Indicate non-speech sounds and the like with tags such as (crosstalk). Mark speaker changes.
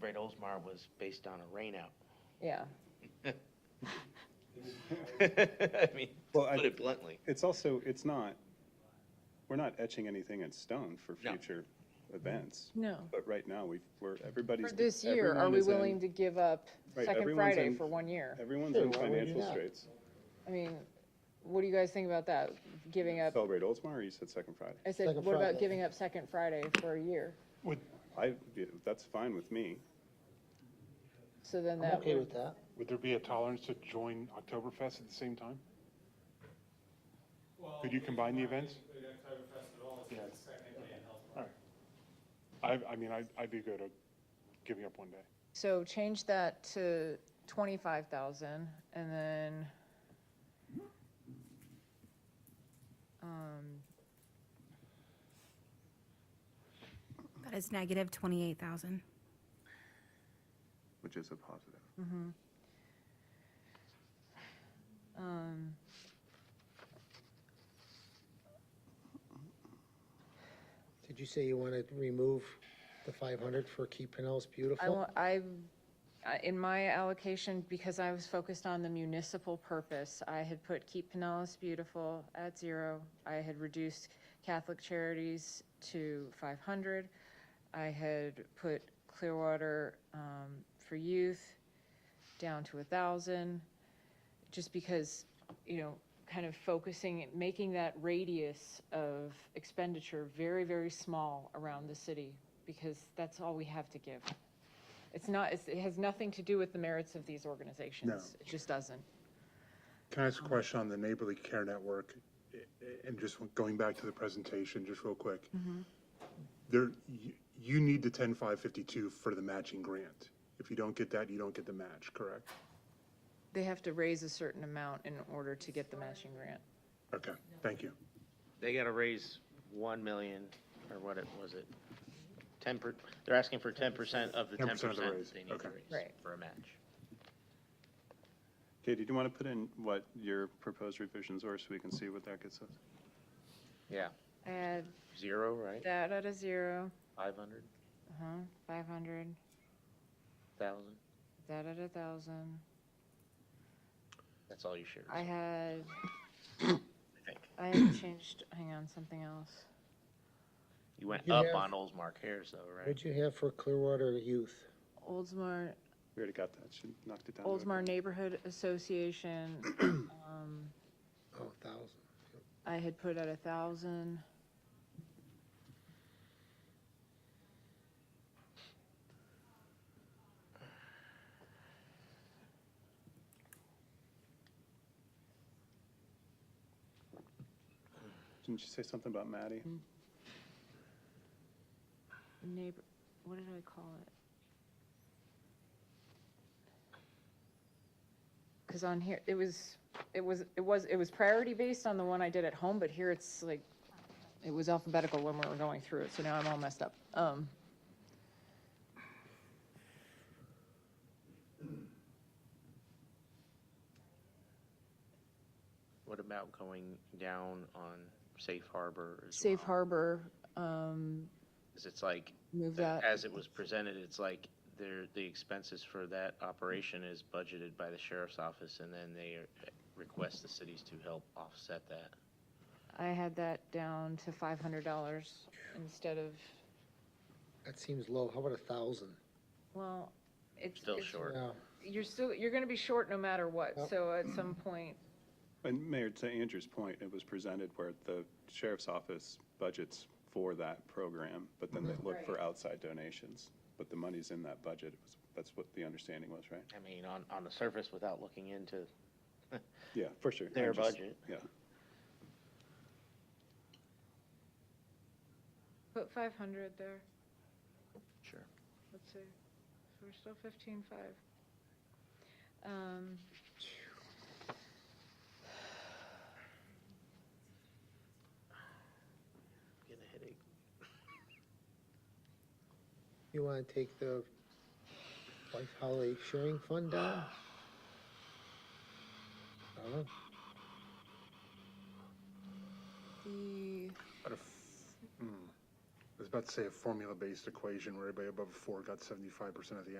Speaker 1: Brett Osmar was based on a rainout.
Speaker 2: yeah.
Speaker 1: (laughs) I mean,
Speaker 3: Well,
Speaker 1: to
Speaker 3: I-
Speaker 1: put it bluntly.
Speaker 3: It's also, it's not, we're not etching anything in stone for
Speaker 1: No.
Speaker 3: future events.
Speaker 2: No.
Speaker 3: But right now, we, we're, everybody's.
Speaker 2: For this year, are
Speaker 3: everyone
Speaker 2: we
Speaker 3: is in-
Speaker 2: willing to give up
Speaker 3: Right,
Speaker 2: Second
Speaker 3: everyone's
Speaker 2: Friday
Speaker 3: in-
Speaker 2: for one year?
Speaker 3: Everyone's in
Speaker 4: Sure, why would you
Speaker 3: financial
Speaker 4: not?
Speaker 3: straits.
Speaker 2: I mean, what do you guys think about that? Giving up,
Speaker 3: Celebrate Oldsmar, or you said Second Friday?
Speaker 2: I said,
Speaker 4: Second
Speaker 2: what about
Speaker 4: Friday.
Speaker 2: giving up Second Friday for a year?
Speaker 5: Would,
Speaker 3: I, yeah, that's fine with me.
Speaker 2: So then
Speaker 4: I'm
Speaker 2: that
Speaker 4: okay
Speaker 2: would,
Speaker 4: with that.
Speaker 5: would there be a tolerance to join Oktoberfest at the same time? Could you combine the events? All right. I, I mean, I, I'd be good at giving up one day.
Speaker 2: so change that to twenty-five thousand and then, um,
Speaker 6: That is negative 28,000.
Speaker 3: Which is a positive.
Speaker 2: um,
Speaker 4: Did you say you want to remove the five hundred for Keep Pinellas
Speaker 2: I
Speaker 4: Beautiful?
Speaker 2: want, I, I- in my allocation, because I was focused on the municipal purpose, I had put Keep Pinellas Beautiful at zero. I had reduced Catholic Charities to five hundred. I had put Clearwater, um, for youth down to a thousand. Just because, you know, kind of focusing, making that radius of expenditure very, very small around the city because that's all we have to give. It's not, it's- it has nothing to do with the merits of these organizations. It just doesn't.
Speaker 7: Can I ask a question on the Neighborly Care Network? I- I- And just going back to the presentation, just real quick. There, you, you need the ten five fifty-two for the matching grant. If you don't get that, you don't get the match, correct?
Speaker 2: They have to raise a certain amount in order to get the matching grant.
Speaker 7: Okay, thank you.
Speaker 1: They gotta raise one million, or what it, was it? Ten per, they're asking for ten percent of the ten
Speaker 7: 10%
Speaker 1: percent
Speaker 7: of the raise,
Speaker 1: they need to
Speaker 7: okay.
Speaker 1: raise
Speaker 2: Right.
Speaker 1: for a match.
Speaker 3: Katie, do you want to put in what your proposed revisions are so we can see what that gets us?
Speaker 1: Yeah.
Speaker 2: Add
Speaker 1: Zero, right?
Speaker 2: that at a zero,
Speaker 1: Five hundred
Speaker 2: uh-huh, five hundred,
Speaker 1: thousand?
Speaker 2: that at a thousand.
Speaker 1: That's all you should.
Speaker 2: I had,
Speaker 1: think.
Speaker 2: I had changed, hang on, something else.
Speaker 1: You went
Speaker 4: You
Speaker 1: up
Speaker 4: have-
Speaker 1: on Oldsmar Cares though, right?
Speaker 4: What'd you have for Clearwater Youth?
Speaker 2: Oldsmar,
Speaker 3: We already got that. She knocked it down. to a-
Speaker 2: Oldsmar Neighborhood Association, um,
Speaker 4: Oh, a thousand.
Speaker 2: I had put at a thousand.
Speaker 3: Didn't you say something about Maddie?
Speaker 2: neighbor, what did I call it? Because on here, it was, it was, it was, it was priority based on the one I did at home, but here it's like, it was alphabetical when we were going through it, so now I'm all messed up. Um,
Speaker 1: What about going down on Safe Harbor as
Speaker 2: Safe
Speaker 1: well?
Speaker 2: Harbor, um,
Speaker 1: 'Cause it's like,
Speaker 2: move that,
Speaker 1: as it was presented, it's like there, the expenses for that operation is budgeted by the sheriff's office and then they request the cities to help offset that.
Speaker 2: I had that down to five hundred dollars instead of,
Speaker 4: That seems low. How about a thousand?
Speaker 2: well, it's.
Speaker 1: Still
Speaker 2: it's-
Speaker 1: short.
Speaker 4: Yeah.
Speaker 2: You're still, you're gonna be short no matter what,
Speaker 4: Yep.
Speaker 2: so at some point,
Speaker 3: And Mayor, to Andrew's point, it was presented where the sheriff's office budgets for that program, but then they look for outside donations. But the money's in that budget. It was- That's what the understanding was, right?
Speaker 1: I mean, on, on the surface without looking into
Speaker 3: Yeah, for sure.
Speaker 1: their
Speaker 3: I'm just-
Speaker 1: budget.
Speaker 3: Yeah.
Speaker 2: put five hundred there.
Speaker 1: Sure.
Speaker 2: Let's see, so we're still fifteen five. Um.
Speaker 1: Getting a headache.
Speaker 4: You want to take the Life Holly Sharing Fund (sighs) down? Donna?
Speaker 2: The,
Speaker 7: But if- mm. was about to say a formula-based equation where everybody above a four got seventy-five percent of the